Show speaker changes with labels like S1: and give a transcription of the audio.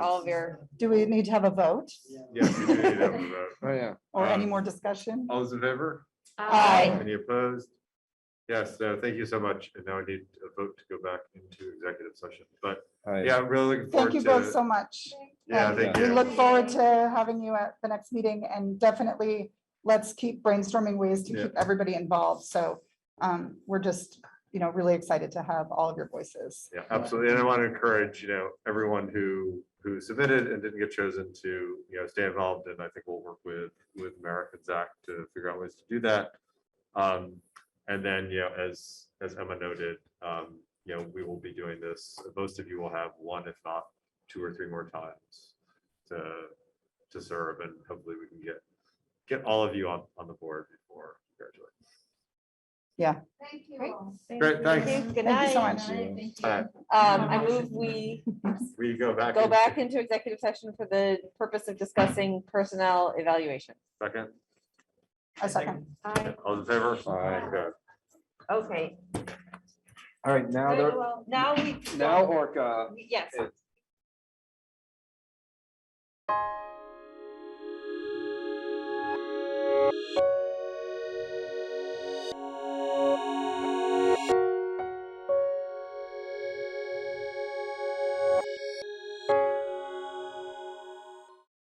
S1: all of your,
S2: Do we need to have a vote
S3: Yes, we do need that one vote.
S4: Oh, yeah.
S2: or any
S3: Um,
S2: more discussion?
S3: All those in favor?
S2: Aye.
S3: Any opposed? Yes, so thank you so much. And now I need a vote to go back into executive session, but yeah, I'm really looking forward
S2: Thank
S3: to.
S2: you both so much.
S3: Yeah,
S2: and
S3: thank
S2: We
S3: you.
S2: look forward to having you at the next meeting and definitely let's keep brainstorming ways to
S3: Yeah.
S2: keep everybody involved. So um, we're just, you know, really excited to have all of your voices.
S3: Yeah, absolutely. And I want to encourage, you know, everyone who, who submitted and didn't get chosen to, you know, stay involved. And I think we'll work with, with Merrick and Zach to figure out ways to do that. Um, and then, you know, as, as Emma noted, um, you know, we will be doing this, most of you will have one, if not two or three more times to, to serve and hopefully we can get, get all of you on, on the board before. we graduate.
S5: Thank you
S1: Great.
S5: all.
S3: Great, thanks.
S1: Thank you. good
S2: Thank you so
S1: night.
S2: much.
S3: Alright.
S1: Um, I move we
S3: We go back.
S1: go
S3: into-
S1: back into executive session for the purpose of discussing personnel evaluation.
S3: Second,
S2: A second.
S3: all in favor?
S4: Aye.
S3: Okay.
S1: Okay,
S4: All right, now
S5: Very
S4: they're,
S5: well.
S1: now we.
S4: now Orca.
S1: Yes,
S4: It's